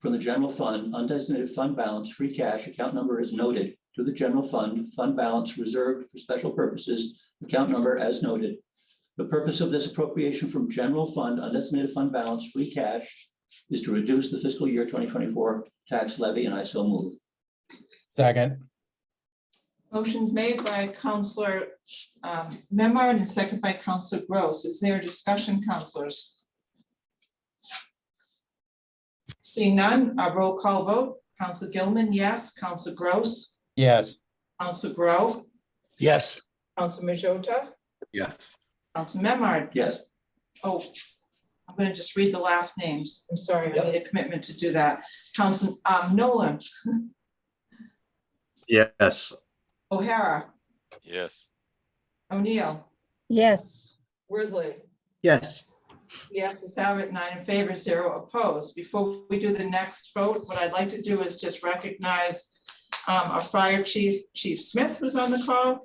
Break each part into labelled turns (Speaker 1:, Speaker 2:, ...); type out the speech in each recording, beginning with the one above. Speaker 1: from the general fund, undesignated fund balance, free cash, account number is noted to the general fund, fund balance reserved for special purposes, account number as noted. The purpose of this appropriation from general fund, undesignated fund balance, free cash is to reduce the fiscal year twenty twenty-four tax levy, and I so move.
Speaker 2: second,
Speaker 3: Motion's made by Counselor um, Memard and second by Counselor Gross. Is there a discussion, counselors? Seeing none, a roll call vote. Counselor Gilman, yes. Counselor Gross,
Speaker 2: yes,
Speaker 3: Counselor Grow,
Speaker 4: yes,
Speaker 3: Counselor Majota,
Speaker 5: yes,
Speaker 3: Counselor Memard.
Speaker 1: Yes,
Speaker 3: Oh, I'm gonna just read the last names. I'm sorry, I
Speaker 1: Yep.
Speaker 3: made a commitment to do that. Counselor um, Nolan,
Speaker 6: yes,
Speaker 3: O'Hara,
Speaker 7: yes,
Speaker 3: O'Neill,
Speaker 8: yes,
Speaker 3: Worthly.
Speaker 5: yes,
Speaker 3: Yes, let's have it, nine in favor, zero opposed. Before we do the next vote, what I'd like to do is just recognize um, our fire chief, Chief Smith was on the call.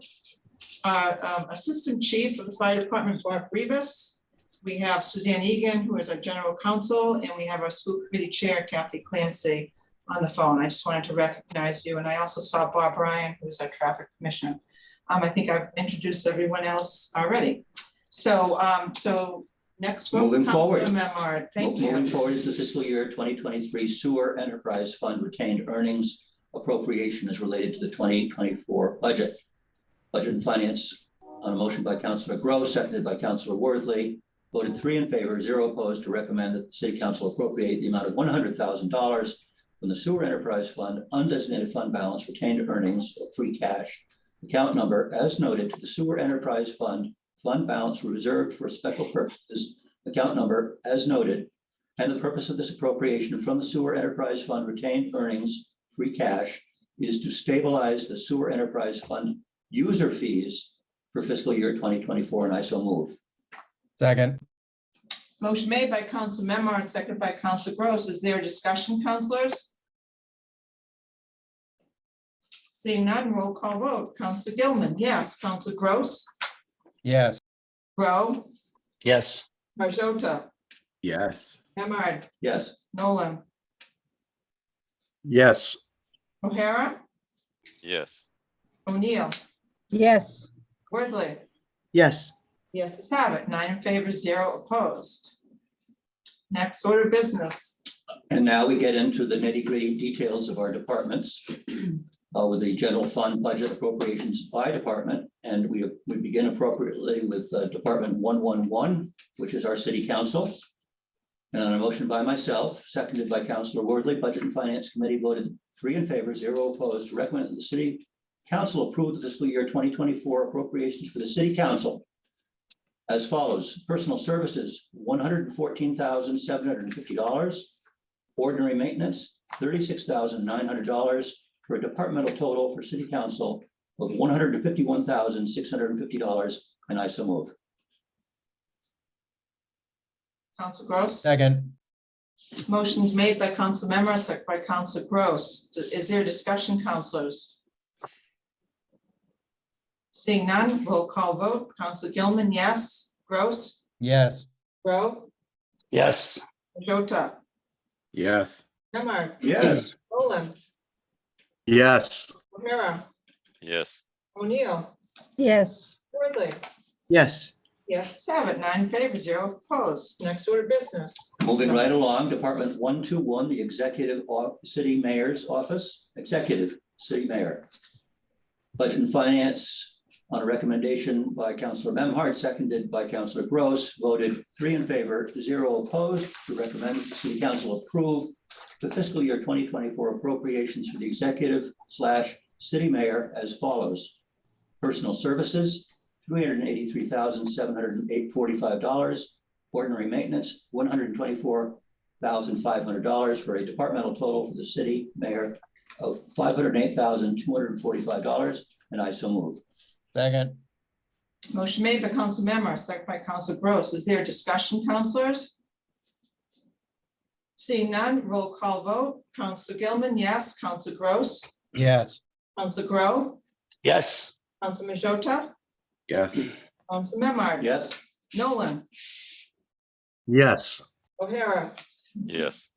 Speaker 3: Our um, Assistant Chief of the Fire Department, Mark Rivas. We have Suzanne Egan, who is our General Counsel, and we have our School Committee Chair, Kathy Clancy, on the phone. I just wanted to recognize you, and I also saw Bob Ryan, who is our Traffic Commissioner. Um, I think I've introduced everyone else already. So, um, so Next vote.
Speaker 1: Moving forward.
Speaker 3: Councilor Memard, thank
Speaker 1: Moving
Speaker 3: you.
Speaker 1: forward is the fiscal year twenty twenty-three sewer enterprise fund retained earnings appropriation is related to the twenty twenty-four budget. Budget and finance on a motion by Councilor Gross, seconded by Councilor Worthley, voted three in favor, zero opposed to recommend that the city council appropriate the amount of one hundred thousand dollars from the sewer enterprise fund undesignated fund balance retained earnings of free cash account number as noted to the sewer enterprise fund fund balance reserved for special purposes account number as noted and the purpose of this appropriation from the sewer enterprise fund retained earnings, free cash, is to stabilize the sewer enterprise fund user fees for fiscal year 2024, and I so move.
Speaker 2: second,
Speaker 3: Motion made by Council Memard, seconded by Council Gross. Is there a discussion, councilors? Seeing none, roll call vote. Council Gilman, yes. Council Gross,
Speaker 2: yes,
Speaker 3: Grow,
Speaker 4: yes,
Speaker 3: Marjota,
Speaker 5: yes,
Speaker 3: Memard,
Speaker 1: Yes,
Speaker 3: Nolan,
Speaker 6: yes,
Speaker 3: O'Hara,
Speaker 7: yes,
Speaker 3: O'Neill,
Speaker 8: yes,
Speaker 3: Worthly.
Speaker 5: yes,
Speaker 3: Yes, let's have it. Nine in favor, zero opposed. Next order of business.
Speaker 1: and now we get into the nitty gritty details of our departments uh, with the general fund budget appropriations by department, and we, we begin appropriately with uh, Department 111, which is our city council. And on a motion by myself, seconded by Councilor Worthley, Budget and Finance Committee voted three in favor, zero opposed, to recommend that the city council approve the fiscal year twenty twenty-four appropriations for the city council as follows, personal services, one hundred and fourteen thousand, seven hundred and fifty dollars. Ordinary maintenance, thirty-six thousand, nine hundred dollars for a departmental total for city council of one hundred and fifty-one thousand, six hundred and fifty dollars, and I so move.
Speaker 3: Council Gross?
Speaker 2: second,
Speaker 3: Motion's made by Council Memmer, second by Council Gross. Is there discussion, councilors? Seeing none, roll call vote. Council Gilman, yes. Gross?
Speaker 2: yes,
Speaker 3: Grow?
Speaker 4: yes,
Speaker 3: Majota?
Speaker 5: yes,
Speaker 3: Memmer?
Speaker 1: Yes.
Speaker 3: Nolan?
Speaker 6: yes,
Speaker 3: O'Hara?
Speaker 7: yes,
Speaker 3: O'Neill?
Speaker 8: yes,
Speaker 3: Worthly?
Speaker 5: yes,
Speaker 3: Yes, seven, nine in favor, zero opposed. Next order of business.
Speaker 1: Moving right along, Department one two one, the Executive O- City Mayor's Office, Executive City Mayor. Budget and Finance, on a recommendation by Councilor Memhard, seconded by Councilor Gross, voted three in favor, zero opposed, to recommend the City Council approve the fiscal year twenty twenty-four appropriations for the executive slash city mayor as follows. Personal Services, three hundred and eighty-three thousand, seven hundred and eight, forty-five dollars. Ordinary maintenance, one hundred and twenty-four thousand five hundred dollars for a departmental total for the city mayor of five hundred and eight thousand two hundred and forty-five dollars, and I so move.
Speaker 2: second,
Speaker 3: Motion made by Council Memmer, second by Council Gross. Is there discussion, councilors? Seeing none, roll call vote. Council Gilman, yes. Council Gross.
Speaker 2: yes,
Speaker 3: Council Grow.
Speaker 4: yes,
Speaker 3: Council Majota.
Speaker 5: yes,
Speaker 3: Council Memard.
Speaker 1: Yes,
Speaker 3: Nolan.
Speaker 6: yes,
Speaker 3: O'Hara.
Speaker 7: yes,